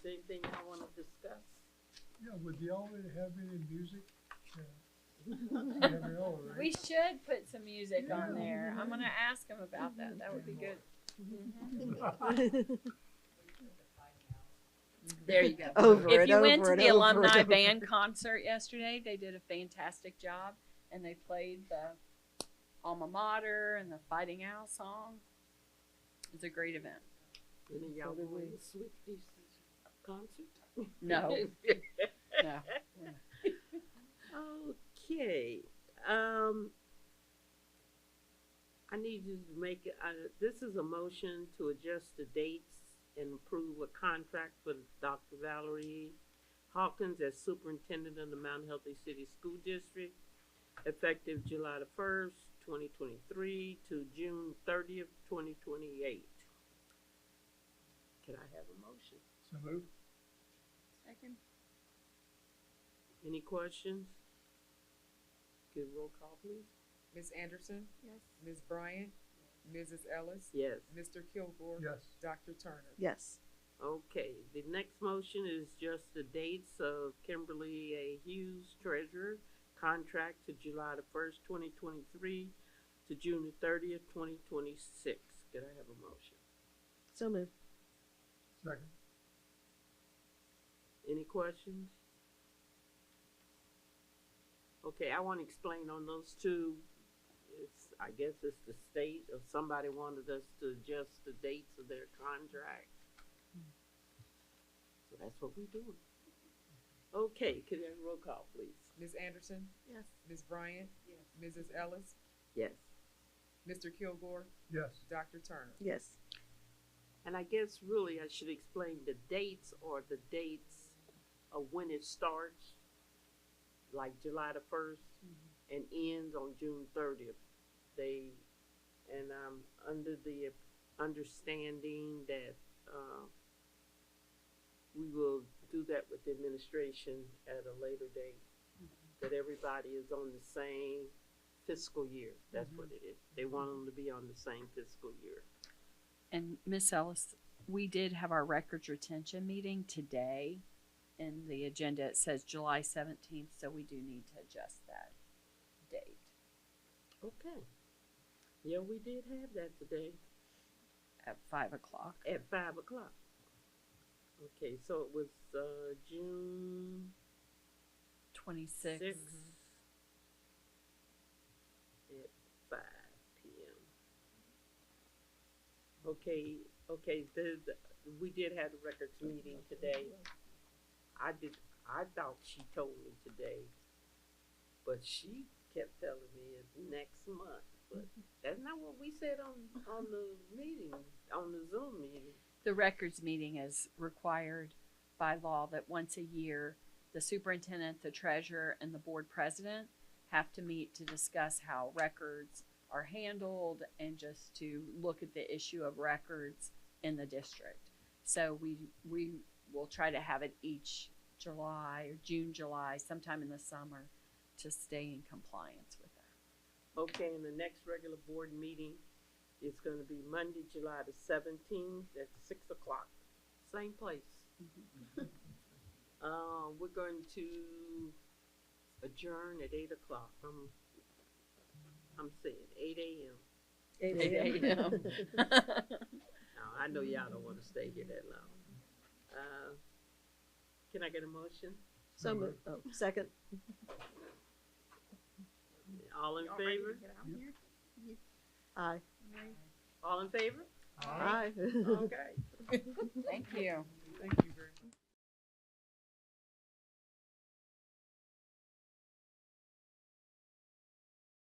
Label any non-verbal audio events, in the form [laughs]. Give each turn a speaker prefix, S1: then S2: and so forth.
S1: Yeah, would y'all have any music? Yeah. You never know, right?
S2: We should put some music on
S1: Yeah.
S2: there. I'm gonna ask him about that. That would be
S3: Mm-hmm.
S2: good. Mm-hmm. There you go.
S3: Over
S2: if
S3: and
S2: you
S3: over
S2: went to
S3: and
S2: the
S3: over and
S2: alumni
S3: over.
S2: band concert yesterday, they did a fantastic job, and they played the alma mater and the Fighting Owl song. It's a great event.
S4: So they went to Swifties concert?
S2: [laughs] No, no.
S4: Okay, um, I need you to make, uh, this is a motion to adjust the dates and approve a contract for Dr. Valerie Hawkins as superintendent of the Mount Healthy City School District, effective July the first, twenty twenty-three to June thirtieth, twenty twenty-eight. Can I have a motion?
S1: So moved.
S4: Any questions? Good roll call, please.
S5: Ms. Anderson? Yes. Ms. Bryant? Mrs. Ellis?
S4: Yes.
S5: Mr. Kilgore?
S1: Yes.
S5: Dr. Turner?
S3: Yes.
S4: Okay, the next motion is just the dates of Kimberly A. Hughes Treasurer contract to July the first, twenty twenty-three to June the thirtieth, twenty twenty-six. Could I have a motion?
S3: So moved.
S1: Second.
S4: Any questions? Okay, I wanna explain on those two, it's, I guess it's the state of somebody wanted us to adjust the dates of their contract. So that's what we're doing. Okay, could I have a roll call, please?
S5: Ms. Anderson?
S3: Yes.
S5: Ms. Bryant? Yes. Mrs. Ellis?
S4: Yes.
S5: Mr. Kilgore?
S1: Yes.
S5: Dr. Turner?
S3: Yes.
S4: And I guess really I should explain the dates or the dates of when it starts, like July the first, and ends on June thirtieth. They, and I'm under the understanding that, uh, we will do that with the administration at a later date. That everybody is on the same fiscal year, that's what it is. They want them to be on the same fiscal year.
S2: And Miss Ellis, we did have our records retention meeting today. In the agenda, it says July seventeenth, so we do need to adjust that date.
S4: Okay. Yeah, we did have that today
S2: at five o'clock.
S4: at five o'clock. Okay, so it was, uh, June
S2: Twenty-six.
S4: sixth. At five P M. Okay, okay, the, the, we did have the records meeting today. I did, I thought she told me today, but she kept telling me it's next month, but that's not what we said on, on the meeting, on the Zoom meeting.
S2: The records meeting is required by law that once a year, the superintendent, the treasurer, and the board president have to meet to discuss how records are handled and just to look at the issue of records in the district. So we, we will try to have it each July or June, July, sometime in the summer to stay in compliance with that.
S4: Okay, and the next regular board meeting is gonna be Monday, July the seventeenth at six o'clock, same place. Uh, we're going to adjourn at eight o'clock, I'm, I'm saying eight AM. Now, I know y'all don't wanna stay here that long. Uh, can I get a motion?
S3: So moved. Oh, second.
S4: All in favor?
S3: Aye.
S4: All in favor?
S3: Aye. [laughs]
S4: Okay.
S2: Thank you.